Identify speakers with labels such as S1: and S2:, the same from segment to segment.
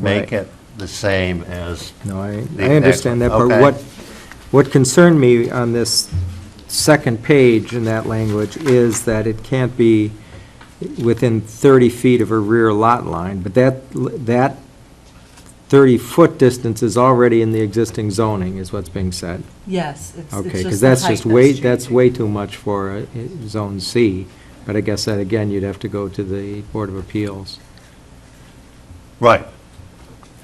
S1: make
S2: Right.
S1: it the same as,
S2: No, I,
S1: The
S2: I understand that,
S1: next
S2: but
S1: one, okay.
S2: what, what concerned me on this second page in that language is that it can't be within 30 feet of a rear lot line, but that, l- that 30-foot distance is already in the existing zoning, is what's being said.
S3: Yes, it's, it's just
S2: Okay,
S3: the height
S2: because that's just way, that's
S3: changing.
S2: way too much for uh, Zone C, but I guess that, again, you'd have to go to the Board of Appeals.
S1: right,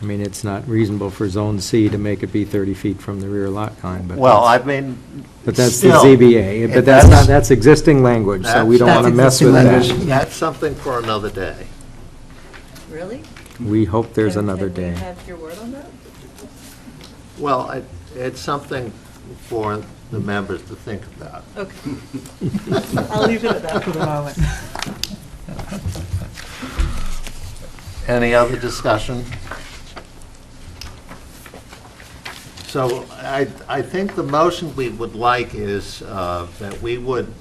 S2: I mean, it's not reasonable for Zone C to make it be 30 feet from the rear lot line, but.
S1: well, I
S2: that's-
S1: mean,
S2: But that's the
S1: still,
S2: ZBA,
S1: it-
S2: but that's not, that's existing language, so we don't
S1: That's-
S2: want to mess with
S1: that's-
S2: that.
S1: That's something for another day.
S4: Really?
S2: We hope there's
S4: Can-
S2: another
S4: Can we
S2: day.
S4: have your word on that?
S1: Well, it- it's something for the members to think about.
S4: Okay. I'll leave it at that for the moment.
S1: Any other discussion? So I, I think the motion we would like is uh, that we would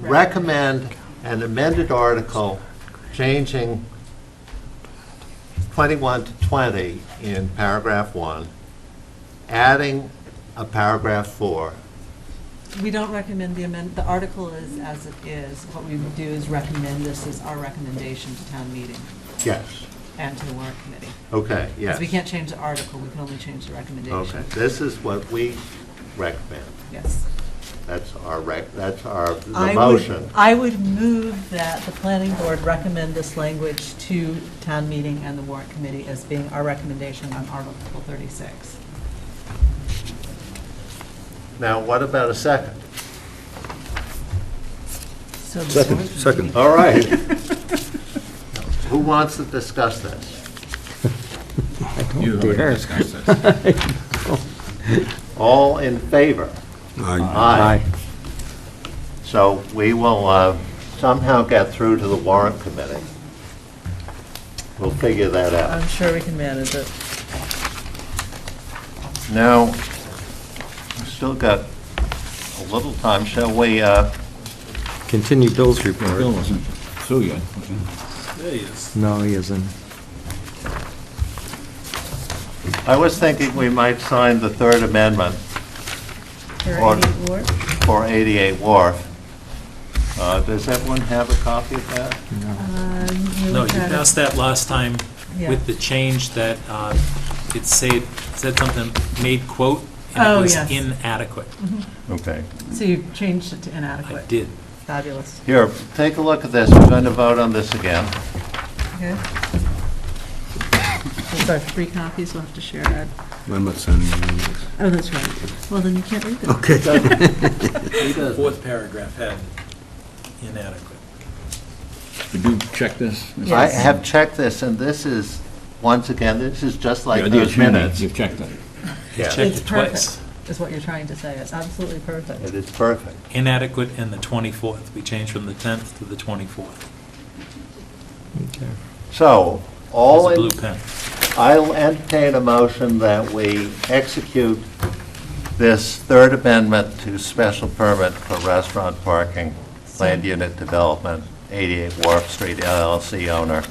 S1: recommend an amended article changing 21 to 20 in paragraph 1, adding a paragraph 4.
S3: We don't recommend the amend, the article is as it is. What we would do is recommend this as our recommendation to town meeting
S1: Yes,
S3: and to the warrant committee.
S1: okay, yes.
S3: Because we can't change the article, we can only change the recommendation.
S1: Okay, this is what we recommend.
S3: Yes.
S1: That's our rec, that's our, the
S4: I
S1: motion.
S4: would, I would move that the planning board recommend this language to town meeting and the warrant committee as being our recommendation on Article 36.
S1: Now, what about a second?
S3: So the
S5: Second,
S3: warrant committee-
S5: second.
S1: All right. Who wants to discuss this?
S5: You
S2: don't dare.
S5: discuss this.
S1: All in favor? Aye. So we will uh, somehow get through to the warrant committee. We'll figure that out.
S4: I'm sure we can manage it.
S1: Now, we've still got a little time, shall we? uh,
S2: Continue Bill's report.
S5: Bill wasn't through yet.
S2: No, he isn't.
S1: I was thinking we might sign the Third Amendment
S4: For
S1: Or-
S4: 88 Ward?
S1: for 88 Wharf. Uh, Does everyone have a copy of that?
S4: Um,
S6: No, you passed that last time
S4: Yeah.
S6: with the change that uh, it said, said something, made quote,
S4: Oh,
S6: and it was
S4: yes.
S6: inadequate.
S1: Okay.
S4: So you've changed it to
S6: I
S4: inadequate.
S6: did.
S4: Fabulous.
S1: Here, take a look at this, we're going to vote on this again.
S4: Okay. Those are three copies we'll have to share, Ed.
S5: I'm not signing anything.
S4: Oh, that's right. Well, then you can't read them.
S6: Fourth paragraph had inadequate.
S5: Did you check this?
S1: I have checked this, and this is, once again, this is just like
S5: You're the
S1: those
S5: attorney.
S1: minutes.
S5: You've checked it.
S1: Yeah.
S6: Checked
S4: It's
S6: it twice.
S4: is what you're trying to say. It's absolutely
S1: It
S4: perfect.
S1: is perfect.
S6: Inadequate and the 24th. We changed from the 10th to the 24th.
S2: Okay.
S1: So, all,
S6: It's a
S1: in-
S6: blue pen.
S1: I'll entertain a motion that we execute this Third Amendment to special permit for restaurant parking, land unit development, 88 Wharf Street LLC owner,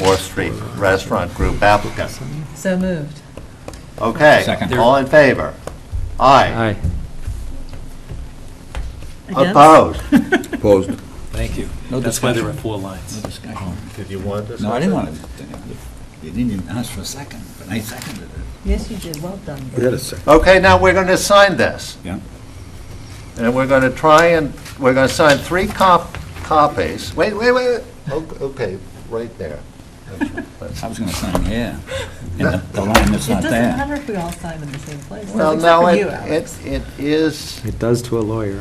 S1: Wharf Street Restaurant Group applicant.
S4: So moved.
S1: Okay,
S5: Second.
S1: all in favor? Aye.
S2: Aye.
S1: Oh,
S4: Against?
S1: Opposed?
S5: Opposed.
S6: Thank you.
S5: No
S6: That's why there were
S5: discussion.
S6: four lines.
S5: discussion.
S1: Did you want this?
S5: Oh, No, I didn't want to, you didn't even ask for a second, but I seconded it.
S4: Yes, you did. Well done.
S5: I got a second.
S1: Okay, now we're going to sign this.
S5: Yeah.
S1: And we're going to try and, we're going to sign three cop, copies. Wait, wait, wait, O- Oh, okay, right there.
S5: I was going to sign here. And the- the line that's
S4: It
S5: not
S4: doesn't
S5: there.
S4: matter if we all sign in the same place.
S1: Well,
S4: except
S1: now,
S4: for
S1: it,
S4: you,
S1: it
S4: Alex.
S1: it is,
S2: It does to a lawyer.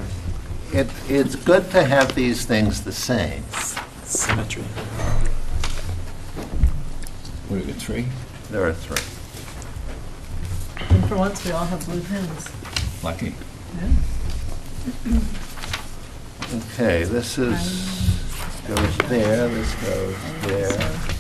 S1: it, it's good to have these things the same.
S6: Symmetry.
S5: What, we got three?
S1: There are three.
S4: And for once, we all have blue pins.
S5: Lucky.
S1: Okay, this is, goes there, this goes there,